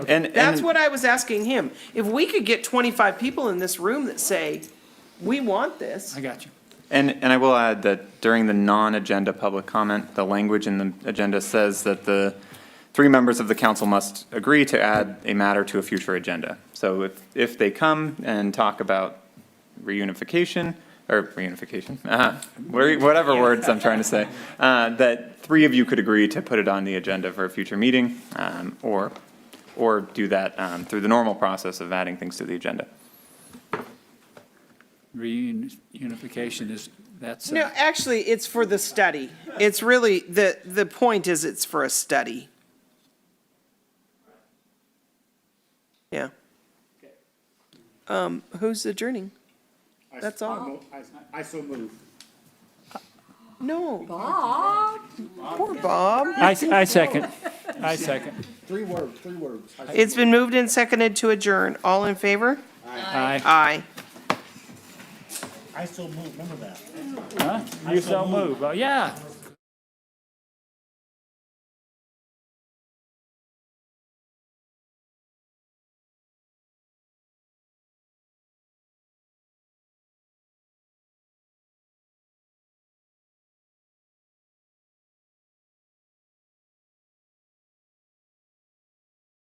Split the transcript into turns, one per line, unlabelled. And,
That's
and-
what I was asking him. If we could get twenty-five people in this room that say, we want this,
I got you.
And, and I will add that during the non-agenda public comment, the language in the agenda says that the three members of the council must agree to add a matter to a future agenda. So if, if they come and talk about reunification, or reunification, uh, where- whatever words I'm trying to say, uh, that three of you could agree to put it on the agenda for a future meeting, um, or, or do that um, through the normal process of adding things to the agenda.
Reunification is, that's, uh,
No, actually, it's for the study. It's really, the, the point is it's for a study. Yeah. Um, who's adjourning?
I-
That's
I
all.
mo- I- I so move.
No. Bob. Poor Bob.
I, I second, I second.
Three words, three words. I-
It's been moved and seconded to adjourn. All in favor?
Aye.
Aye.
I so move, remember that.
Huh? You so move, oh, yeah,